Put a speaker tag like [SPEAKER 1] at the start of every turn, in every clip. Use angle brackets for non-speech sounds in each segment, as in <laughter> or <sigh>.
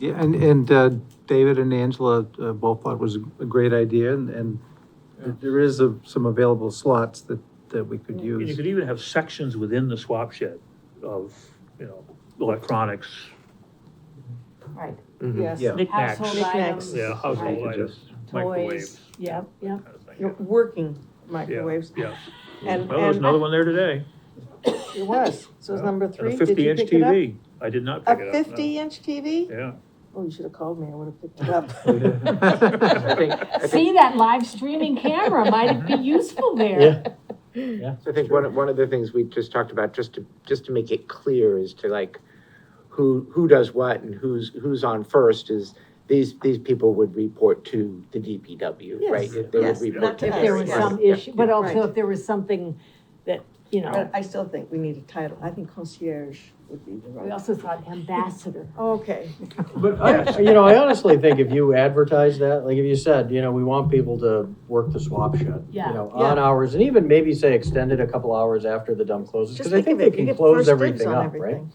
[SPEAKER 1] Yeah, and, and uh, David and Angela uh, both thought it was a great idea, and, and
[SPEAKER 2] Yeah.
[SPEAKER 1] there is a- some available slots that, that we could
[SPEAKER 2] And you
[SPEAKER 1] use.
[SPEAKER 2] could even have sections within the swap shed of, you know, electronics,
[SPEAKER 3] Right,
[SPEAKER 4] Yes.
[SPEAKER 1] Yeah.
[SPEAKER 2] Knickknacks.
[SPEAKER 3] household
[SPEAKER 4] Knickknacks.
[SPEAKER 3] items.
[SPEAKER 2] yeah,
[SPEAKER 3] right,
[SPEAKER 2] household items,
[SPEAKER 4] Toys,
[SPEAKER 2] microwaves.
[SPEAKER 4] yep, yep,
[SPEAKER 2] kind of thing,
[SPEAKER 4] Your working
[SPEAKER 2] yeah.
[SPEAKER 4] microwaves.
[SPEAKER 2] Yeah,
[SPEAKER 4] And,
[SPEAKER 2] well, there's
[SPEAKER 4] and
[SPEAKER 2] another one there today,
[SPEAKER 4] it was, so it's
[SPEAKER 2] Yeah.
[SPEAKER 4] number
[SPEAKER 2] and
[SPEAKER 4] three,
[SPEAKER 2] a
[SPEAKER 4] did you
[SPEAKER 2] fifty-inch
[SPEAKER 4] pick it up?
[SPEAKER 2] TV. I did not
[SPEAKER 4] A
[SPEAKER 2] pick it up. no.
[SPEAKER 4] fifty inch TV?
[SPEAKER 2] Yeah.
[SPEAKER 4] Oh, you should have called me, I would have picked it up.
[SPEAKER 1] I think- I
[SPEAKER 4] <laughs>
[SPEAKER 1] think-
[SPEAKER 3] See, that live streaming camera might be useful there.
[SPEAKER 5] I think one, one of the things we just talked about, just to, just to make it clear is to like, who, who does what and who's, who's on first is, these, these people would report to the DPW,
[SPEAKER 4] Yes,
[SPEAKER 5] right? They would
[SPEAKER 4] yes,
[SPEAKER 5] report
[SPEAKER 4] not to
[SPEAKER 5] to
[SPEAKER 3] If
[SPEAKER 4] us,
[SPEAKER 5] them.
[SPEAKER 3] there was
[SPEAKER 4] yes.
[SPEAKER 3] some
[SPEAKER 5] Yeah.
[SPEAKER 3] issue, but also
[SPEAKER 4] Right.
[SPEAKER 3] if there was something that, you know,
[SPEAKER 4] But I still think we need a title, I think concierge would be the
[SPEAKER 3] we
[SPEAKER 4] right.
[SPEAKER 3] also thought ambassador.
[SPEAKER 4] Okay,
[SPEAKER 6] But I, you know, I honestly think if you advertise that, like if you said, you know, we want people to work the swap shed, you
[SPEAKER 3] Yeah.
[SPEAKER 6] know,
[SPEAKER 4] Yeah.
[SPEAKER 6] on hours, and even maybe say extended a couple hours after the dump closes,
[SPEAKER 4] just
[SPEAKER 6] because I think
[SPEAKER 4] think of
[SPEAKER 6] they
[SPEAKER 4] it, you
[SPEAKER 6] can
[SPEAKER 4] get
[SPEAKER 6] close
[SPEAKER 4] first dibs
[SPEAKER 6] everything
[SPEAKER 4] on
[SPEAKER 6] up, right?
[SPEAKER 4] everything.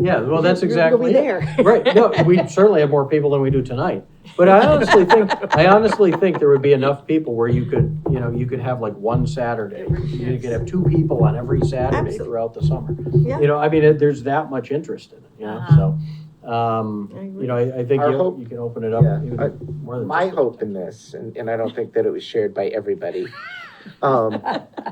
[SPEAKER 6] Yeah, well, that's
[SPEAKER 4] You'll- you'll
[SPEAKER 6] exactly.
[SPEAKER 4] be there.
[SPEAKER 6] <laughs> Right, no, we certainly have more people than we do tonight, but I honestly think, I honestly think there would be enough people where you could, you know, you could have like one Saturday. You could have two people on every Saturday
[SPEAKER 4] Absolutely.
[SPEAKER 6] throughout the summer.
[SPEAKER 4] Yeah.
[SPEAKER 6] You know, I mean, it- there's that much interest in it, you know, so, um,
[SPEAKER 4] Uh-huh. I agree.
[SPEAKER 6] you know, I, I think
[SPEAKER 5] Our
[SPEAKER 6] you,
[SPEAKER 5] hope-
[SPEAKER 6] you can open it up
[SPEAKER 5] Yeah.
[SPEAKER 6] even
[SPEAKER 5] I-
[SPEAKER 6] more than.
[SPEAKER 5] My
[SPEAKER 6] just-
[SPEAKER 5] hope in this, and, and I don't think that it was shared by
[SPEAKER 4] <laughs>
[SPEAKER 5] everybody, um,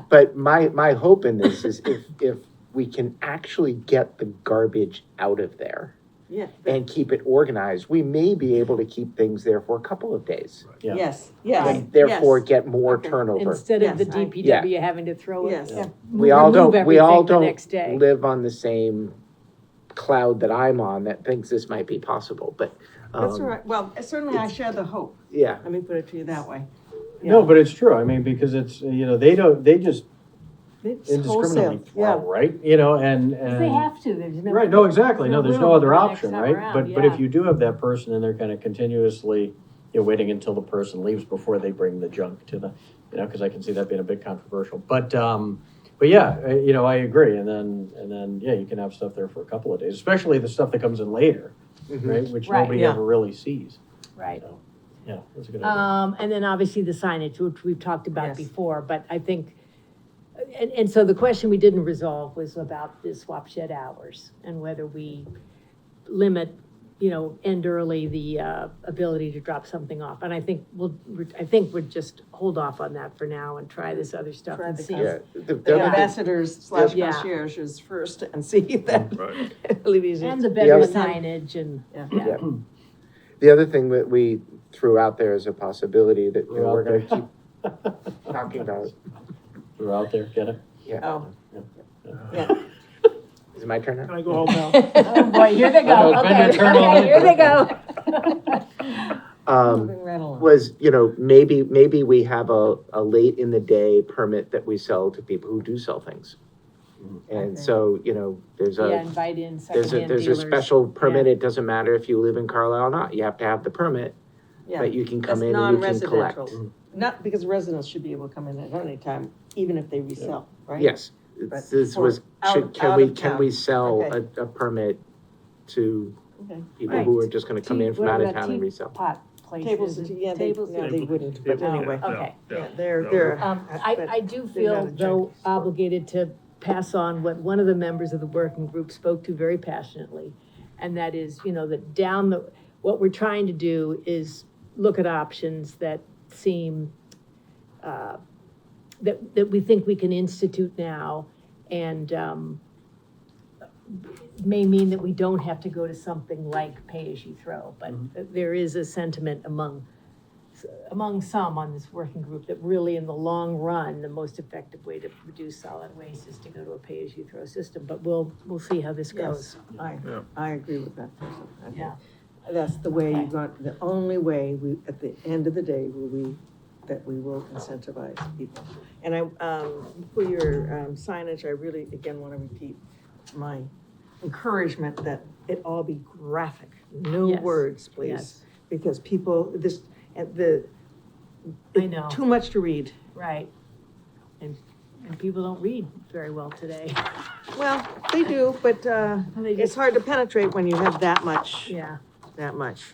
[SPEAKER 5] but my, my hope in this is if, if we can actually get the garbage out of there
[SPEAKER 4] <laughs> Yeah,
[SPEAKER 5] and keep it organized, we may be able to keep things there for a couple of days.
[SPEAKER 6] Yeah.
[SPEAKER 4] yes, yes.
[SPEAKER 5] and therefore
[SPEAKER 4] yes.
[SPEAKER 5] get more
[SPEAKER 4] Okay.
[SPEAKER 5] turnover.
[SPEAKER 3] Instead of the
[SPEAKER 4] Yes, I-
[SPEAKER 3] DPW having to throw it.
[SPEAKER 4] Yes.
[SPEAKER 5] We all
[SPEAKER 3] remove
[SPEAKER 5] don't, we all
[SPEAKER 3] everything the
[SPEAKER 5] don't
[SPEAKER 3] next day.
[SPEAKER 5] live on the same cloud that I'm on that thinks this might be possible, but,
[SPEAKER 4] That's all
[SPEAKER 5] um,
[SPEAKER 4] right, well, certainly I share the hope,
[SPEAKER 5] yeah.
[SPEAKER 4] let me put it to you that way.
[SPEAKER 6] No, but it's true, I mean, because it's, you know, they don't, they just indiscriminately
[SPEAKER 4] Wholesale, yeah.
[SPEAKER 6] throw, right? You know, and, and.
[SPEAKER 3] They have to, there's no.
[SPEAKER 6] Right, no, exactly, no, there's no
[SPEAKER 3] room
[SPEAKER 6] other
[SPEAKER 3] the next
[SPEAKER 6] option,
[SPEAKER 3] time
[SPEAKER 6] right?
[SPEAKER 3] around,
[SPEAKER 6] But, but
[SPEAKER 3] yeah.
[SPEAKER 6] if you do have that person and they're kind of continuously, you're waiting until the person leaves before they bring the junk to the, you know, because I can see that being a bit controversial, but, um, but yeah, I- you know, I agree, and then, and then, yeah, you can have stuff there for a couple of days, especially the stuff that comes in later,
[SPEAKER 5] Mm-hmm.
[SPEAKER 6] right, which
[SPEAKER 3] Right.
[SPEAKER 6] nobody
[SPEAKER 4] Yeah.
[SPEAKER 6] ever really sees,
[SPEAKER 3] Right.
[SPEAKER 6] yeah, that's a good idea.
[SPEAKER 3] Um, and then obviously the signage, which we've talked about
[SPEAKER 4] Yes.
[SPEAKER 3] before, but I think, and, and so the question we didn't resolve was about the swap shed hours and whether we limit, you know, end early the, uh, ability to drop something off. And I think we'll, we're- I think we'd just hold off on that for now and try this other stuff
[SPEAKER 4] Try
[SPEAKER 3] and
[SPEAKER 4] the
[SPEAKER 3] see.
[SPEAKER 4] concept.
[SPEAKER 5] Yeah, the,
[SPEAKER 4] The
[SPEAKER 3] Yeah.
[SPEAKER 5] the,
[SPEAKER 4] ambassadors slash
[SPEAKER 3] Yeah.
[SPEAKER 4] concierge is first and see <laughs> that.
[SPEAKER 2] Right.
[SPEAKER 4] <laughs> alleviates it.
[SPEAKER 3] And the better
[SPEAKER 4] Yeah.
[SPEAKER 3] signage and,
[SPEAKER 4] Yeah.
[SPEAKER 3] yeah,
[SPEAKER 5] the other thing that we threw out there is a possibility that, you know, we're gonna keep talking about,
[SPEAKER 6] <laughs> We're out there, get it?
[SPEAKER 5] yeah.
[SPEAKER 4] Oh,
[SPEAKER 5] Is it my turn
[SPEAKER 2] Can
[SPEAKER 5] now?
[SPEAKER 2] I go home now?
[SPEAKER 3] oh boy, here they
[SPEAKER 6] I
[SPEAKER 3] go,
[SPEAKER 6] know, it's been
[SPEAKER 3] okay,
[SPEAKER 6] your turn
[SPEAKER 3] okay,
[SPEAKER 6] already.
[SPEAKER 3] here they go.
[SPEAKER 5] Um,
[SPEAKER 4] moving right along.
[SPEAKER 5] was, you know, maybe, maybe we have a, a late in the day permit that we sell to people who do sell things.
[SPEAKER 4] Okay.
[SPEAKER 5] And so, you know, there's a.
[SPEAKER 3] Yeah, invite in
[SPEAKER 5] There's a,
[SPEAKER 3] secondhand
[SPEAKER 5] there's a
[SPEAKER 3] dealers.
[SPEAKER 5] special permit, it doesn't matter if you live in Carlisle or not, you have to have the permit,
[SPEAKER 4] Yeah,
[SPEAKER 5] but you can
[SPEAKER 4] that's
[SPEAKER 5] come in and you can collect.
[SPEAKER 4] non-residential. Not, because residents should be able to come in at any time, even if they resell, right?
[SPEAKER 5] Yes,
[SPEAKER 4] But
[SPEAKER 5] this
[SPEAKER 4] for
[SPEAKER 5] was,
[SPEAKER 4] out-
[SPEAKER 5] should, can
[SPEAKER 4] out
[SPEAKER 5] we,
[SPEAKER 4] of
[SPEAKER 5] can
[SPEAKER 4] town.
[SPEAKER 5] we sell
[SPEAKER 4] Okay.
[SPEAKER 5] a, a permit to
[SPEAKER 4] Okay.
[SPEAKER 5] people who are just gonna come in from
[SPEAKER 3] What
[SPEAKER 5] out of
[SPEAKER 3] about
[SPEAKER 5] town and
[SPEAKER 3] tea
[SPEAKER 5] resell?
[SPEAKER 3] pot places.
[SPEAKER 4] Tables,
[SPEAKER 3] and-
[SPEAKER 4] yeah, they,
[SPEAKER 3] tables
[SPEAKER 4] no,
[SPEAKER 3] and-
[SPEAKER 4] they wouldn't, but
[SPEAKER 3] Tables,
[SPEAKER 4] anyway.
[SPEAKER 3] yeah. Okay.
[SPEAKER 4] Yeah,
[SPEAKER 2] no.
[SPEAKER 4] they're, they're.
[SPEAKER 3] Um, I,
[SPEAKER 4] but-
[SPEAKER 3] I do
[SPEAKER 4] they're not
[SPEAKER 3] feel
[SPEAKER 4] in
[SPEAKER 3] though
[SPEAKER 4] charge.
[SPEAKER 3] obligated to pass on what one of the members of the working group spoke to very passionately. And that is, you know, that down the, what we're trying to do is look at options that seem, uh, that, that we think we can institute now and, um, may mean that we don't have to go to something like pay-as-you-throw, but
[SPEAKER 4] Mm-hmm.
[SPEAKER 3] there is a sentiment among, among some on this working group that really, in the long run, the most effective way to reduce solid waste is to go to a pay-as-you-throw system, but we'll, we'll see how this goes.
[SPEAKER 4] Yes, I,
[SPEAKER 2] Yeah.
[SPEAKER 4] I agree with that person. I think
[SPEAKER 3] Yeah.
[SPEAKER 4] That's the way
[SPEAKER 3] Okay.
[SPEAKER 4] you got, the only way we, at the end of the day, will we, that we will incentivize people. And I, um, for your um, signage, I really, again, want to repeat my encouragement that it all be graphic. No
[SPEAKER 3] Yes.
[SPEAKER 4] words,
[SPEAKER 3] Yes.
[SPEAKER 4] please, because people, this, and the.
[SPEAKER 3] I know.
[SPEAKER 4] Too much to read.
[SPEAKER 3] Right. And, and people don't read very well today. <laughs>
[SPEAKER 4] Well, they do, but, uh,
[SPEAKER 3] They
[SPEAKER 4] it's
[SPEAKER 3] just,
[SPEAKER 4] hard to penetrate when you have that much.
[SPEAKER 3] yeah,
[SPEAKER 4] that much.